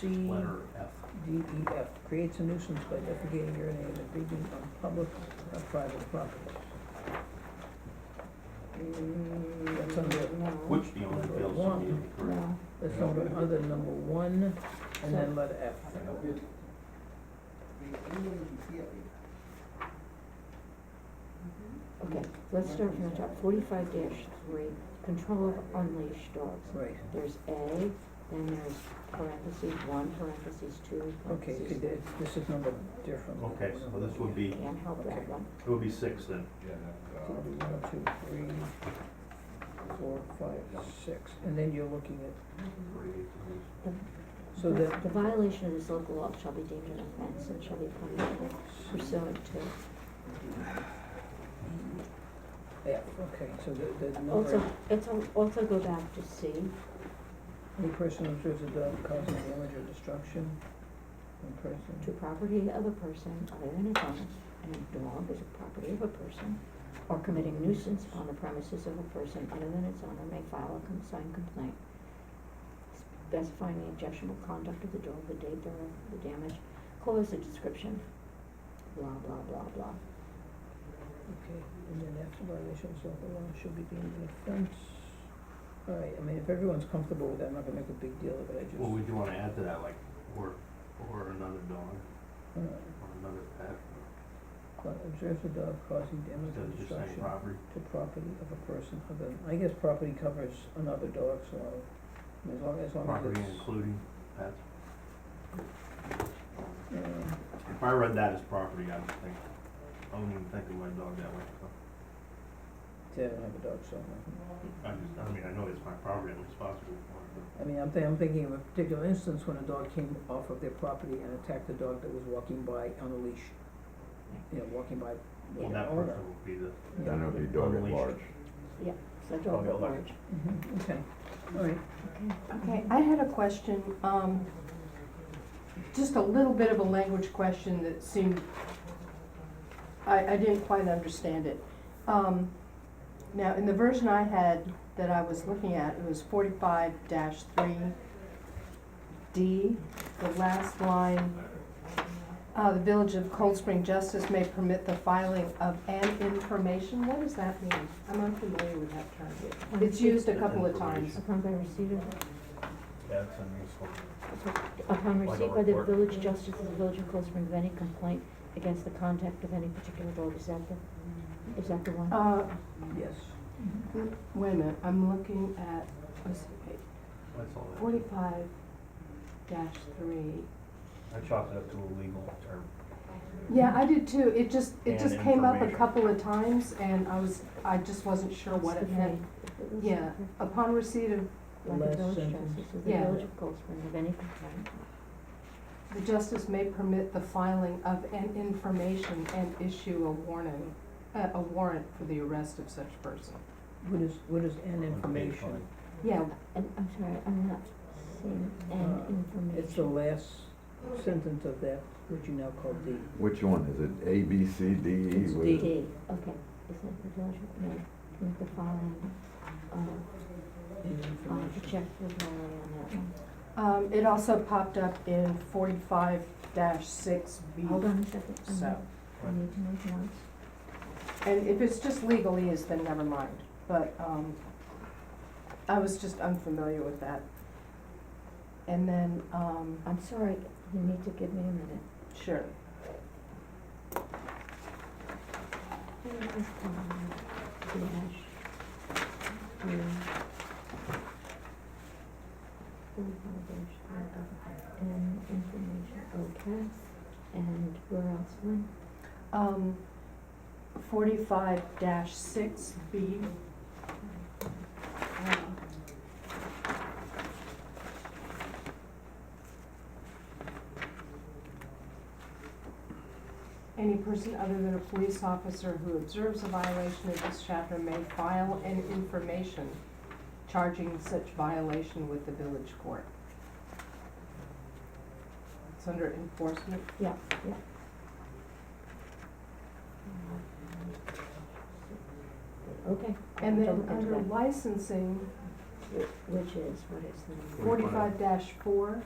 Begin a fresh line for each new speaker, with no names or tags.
C,
letter F.
D, E, F, creates a nuisance by defecating, urinating, and breathing on public or private property.
Mm,
That's under,
Which the owner fails to
One.
meet and correct.
No,
that's under, under number one, and then letter F.
okay, let's start from the top, forty-five three, control of unleashed dogs.
Right,
There's A, then there's parentheses one, parentheses two,
okay,
parentheses
it- it- this is numbered differently.
Okay, so this would be,
Can't help that one.
it would be six then.
uh, One, two, three, four, five, six, and then you're looking at, so
The-
that,
The violation of this local law shall be deemed an offense and shall be punishable pursuant to.
F, okay, so the, the
Also,
number,
it's, al- also go back to C,
any person who observes a dog causing damage or destruction, in person.
to property of a person other than its owner, and a dog is a property of a person, or committing nuisance on the premises of a person other than its owner may file a com- signed complaint. Specifying the objectionable conduct of the dog, the date thereof, the damage, cause, the description, blah, blah, blah, blah.
Okay, and then after violations of the law should be deemed an offense. All right, I mean, if everyone's comfortable with that, I'm not gonna make a big deal of it, I just.
Well, we do wanna add to that, like, or, or another dog,
uh,
or another pet,
but Observe the dog causing damage
instead
or
of just saying
destruction
property.
to property of a person other than, I guess property covers another dog, so I mean, as long, as long as
Property
it's.
including pets.
uh,
If I read that as property, I would think, I wouldn't even think of my dog that way, so.
see, I don't have a dog, so, uh,
I just, I mean, I know it's my property, I'm responsible for it,
I mean, I'm thi- I'm thinking of a particular instance when a dog came off of their property and attacked a dog that was walking by on a leash. You know, walking by
but,
with
well,
an
that
owner.
person would be the,
you
Then
know.
it'll be dog at
Unleashed.
large.
So dog
Probably
at
a large.
large.
Mhm, okay, all right.
Okay, I had a question, um, just a little bit of a language question that seemed, I, I didn't quite understand it. Um, now, in the version I had that I was looking at, it was forty-five three D, the last line. Uh, the Village of Cold Spring Justice may permit the filing of an information, what does that mean? I'm unfamiliar with that term. It's used a couple of times.
Upon by receipt of
that's unuseful.
Upon
Like a
receipt by the
report.
village justice of the village of Cold Spring of any complaint against the conduct of any particular dog, is that the, is that the one?
Uh,
Yes.
Wait a minute, I'm looking at, let's see, wait,
That's all that. is.
forty-five dash three.
I chopped it up to a legal term.
Yeah, I did too, it just, it
And
just came up a
information.
couple of times and I was, I just wasn't sure what it meant. Yeah, upon receipt of
By the
Last
village
sentence.
justice of the
Yeah.
village of Cold Spring of any complaint.
The justice may permit the filing of an information and issue a warning, uh, a warrant for the arrest of such person.
What is, what is an information?
Yeah,
And I'm sorry, I'm not seeing
Uh,
an information.
It's the last sentence of that, which you now call D.
Which one is it? A, B, C, D, E?
It's
What
D.
is it?
D, okay, is it the village, of- no, with the following, uh,
An
I'll have to
information.
check with Lori on that one.
um, it also popped up in forty-five dash six B.
Hold on a second, I
So.
need- I need to make notes.
And if it's just legalese, then never mind, but, um, I was just unfamiliar with that. And then, um,
I'm sorry, you need to give me a minute.
sure,
Where is the dash? three? Forty-five dash three, okay. And information, okay, and where else, Lynn?
um, forty-five dash six B. Any person other than a police officer who observes a violation of this chapter may file an information charging such violation with the village court. It's under enforcement.
Yeah, yeah. Okay.
And then
Don't go
under
back.
licensing,
Which is, what is the number?
Forty-
forty-five dash four,